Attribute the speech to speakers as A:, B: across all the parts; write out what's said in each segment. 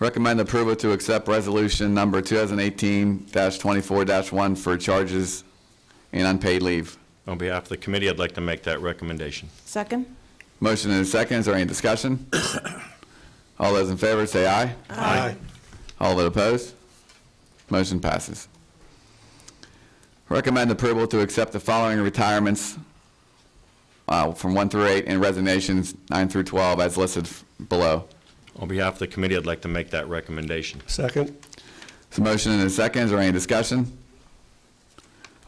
A: Recommend approval to accept resolution number 2018-24-1 for charges and unpaid leave.
B: On behalf of the committee, I'd like to make that recommendation.
C: Second?
A: Motion and a second, is there any discussion? All those in favor say aye.
B: Aye.
A: All that opposed? Motion passes. Recommend approval to accept the following retirements uh, from 1 through 8 and resignations 9 through 12 as listed f- below.
B: On behalf of the committee, I'd like to make that recommendation.
D: Second.
A: So motion and a second, is there any discussion?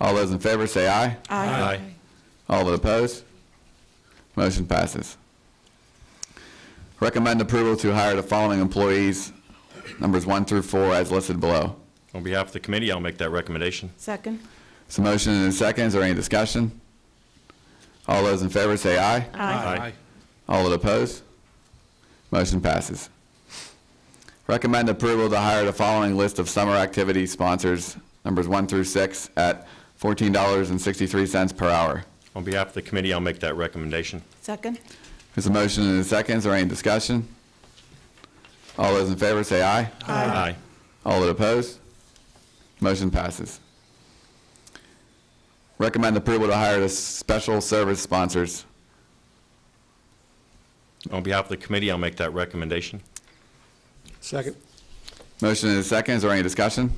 A: All those in favor say aye.
B: Aye.
A: All that opposed? Motion passes. Recommend approval to hire the following employees, numbers 1 through 4 as listed below.
B: On behalf of the committee, I'll make that recommendation.
C: Second?
A: So motion and a second, is there any discussion? All those in favor say aye.
B: Aye.
A: All that oppose? Motion passes. Recommend approval to hire the following list of summer activity sponsors, numbers one through six, at $14.63 per hour.
B: On behalf of the committee, I'll make that recommendation.
C: Second?
A: There's a motion and a second, is there any discussion? All those in favor say aye.
B: Aye.
A: All that oppose? Motion passes. Recommend approval to hire the special service sponsors.
B: On behalf of the committee, I'll make that recommendation.
D: Second.
A: Motion and a second, is there any discussion?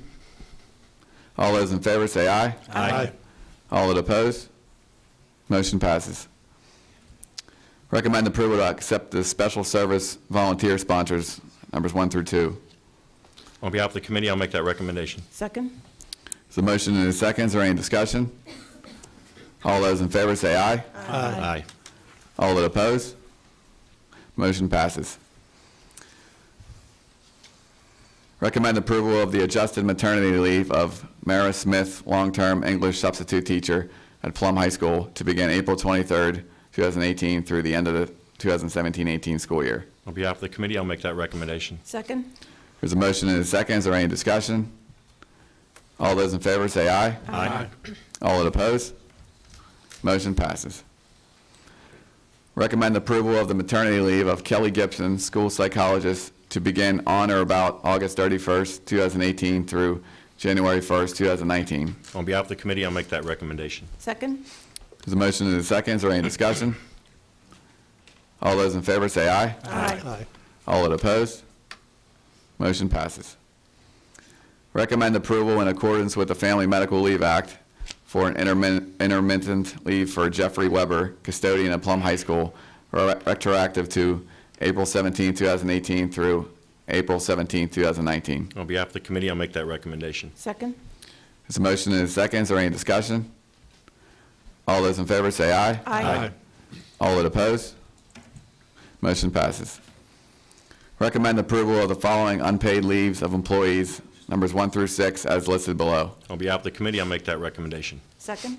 A: All those in favor say aye.
B: Aye.
A: All that oppose? Motion passes. Recommend approval to accept the special service volunteer sponsors, numbers one through two.
B: On behalf of the committee, I'll make that recommendation.
C: Second?
A: So motion and a second, is there any discussion? All those in favor say aye.
B: Aye.
A: All that oppose? Motion passes. Recommend approval of the adjusted maternity leave of Mara Smith, long-term English substitute teacher at Plum High School to begin April 23rd, 2018 through the end of the 2017-18 school year.
B: On behalf of the committee, I'll make that recommendation.
C: Second?
A: There's a motion and a second. Is there any discussion? All those in favor say aye.
B: Aye.
A: All that oppose? Motion passes. Recommend approval of the maternity leave of Kelly Gibson, school psychologist, to begin on or about August 31st, 2018 through January 1st, 2019.
B: On behalf of the committee, I'll make that recommendation.
C: Second?
A: There's a motion and a second. Is there any discussion? All those in favor say aye.
C: Aye.
D: Aye.
A: All that opposed? Motion passes. Recommend approval in accordance with the Family Medical Leave Act for an intermin- intermittent leave for Jeffrey Weber, custodian at Plum High School, re- retroactive to April 17, 2018 through April 17, 2019.
B: On behalf of the committee, I'll make that recommendation.
C: Second?
A: There's a motion and a second. Is there any discussion? All those in favor say aye.
C: Aye.
A: All that oppose? Motion passes. Recommend approval of the following unpaid leaves of employees, numbers one through six, as listed below.
B: On behalf of the committee, I'll make that recommendation.
C: Second?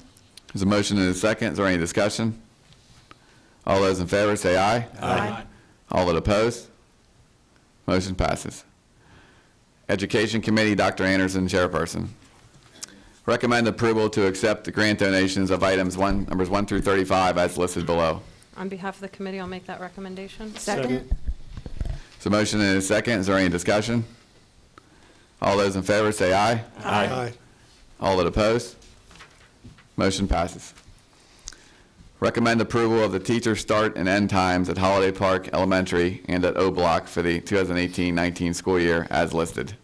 A: There's a motion and a second. Is there any discussion? All those in favor say aye.
C: Aye.
A: All that oppose? Motion passes. Education Committee, Dr. Anderson, Chairperson. Recommend approval to accept the grant donations of items one, numbers one through 35, as listed below.
E: On behalf of the committee, I'll make that recommendation.
C: Second?
A: So motion and a second, is there any discussion? All those in favor say aye.
D: Aye.
A: All that oppose? Motion passes. Recommend approval of the teacher start and end times at Holiday Park Elementary and at O Block for the 2018-19 school year as listed.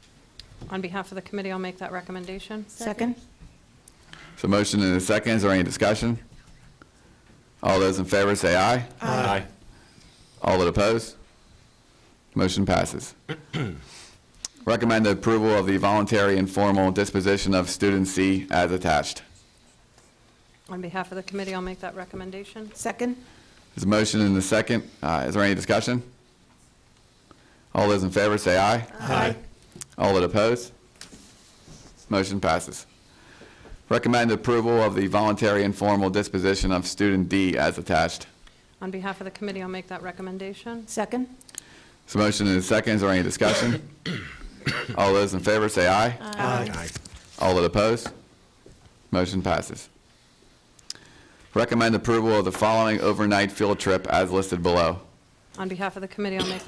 E: On behalf of the committee, I'll make that recommendation.
C: Second?
A: So motion and a second, is there any discussion? All those in favor say aye.
B: Aye.
A: All that oppose? Motion passes. Recommend approval of the voluntary informal disposition of student C as attached.
E: On behalf of the committee, I'll make that recommendation.
C: Second?
A: There's a motion and a second. Uh, Is there any discussion? All those in favor say aye.
C: Aye.
A: All that oppose? Motion passes. Recommend approval of the voluntary informal disposition of student D as attached.
E: On behalf of the committee, I'll make that recommendation.
C: Second?
A: So motion and a second, is there any discussion? All those in favor say aye.
D: Aye.
A: All that oppose? Motion passes. Recommend approval of the following overnight field trip as listed below.
E: On behalf of the committee, I'll make that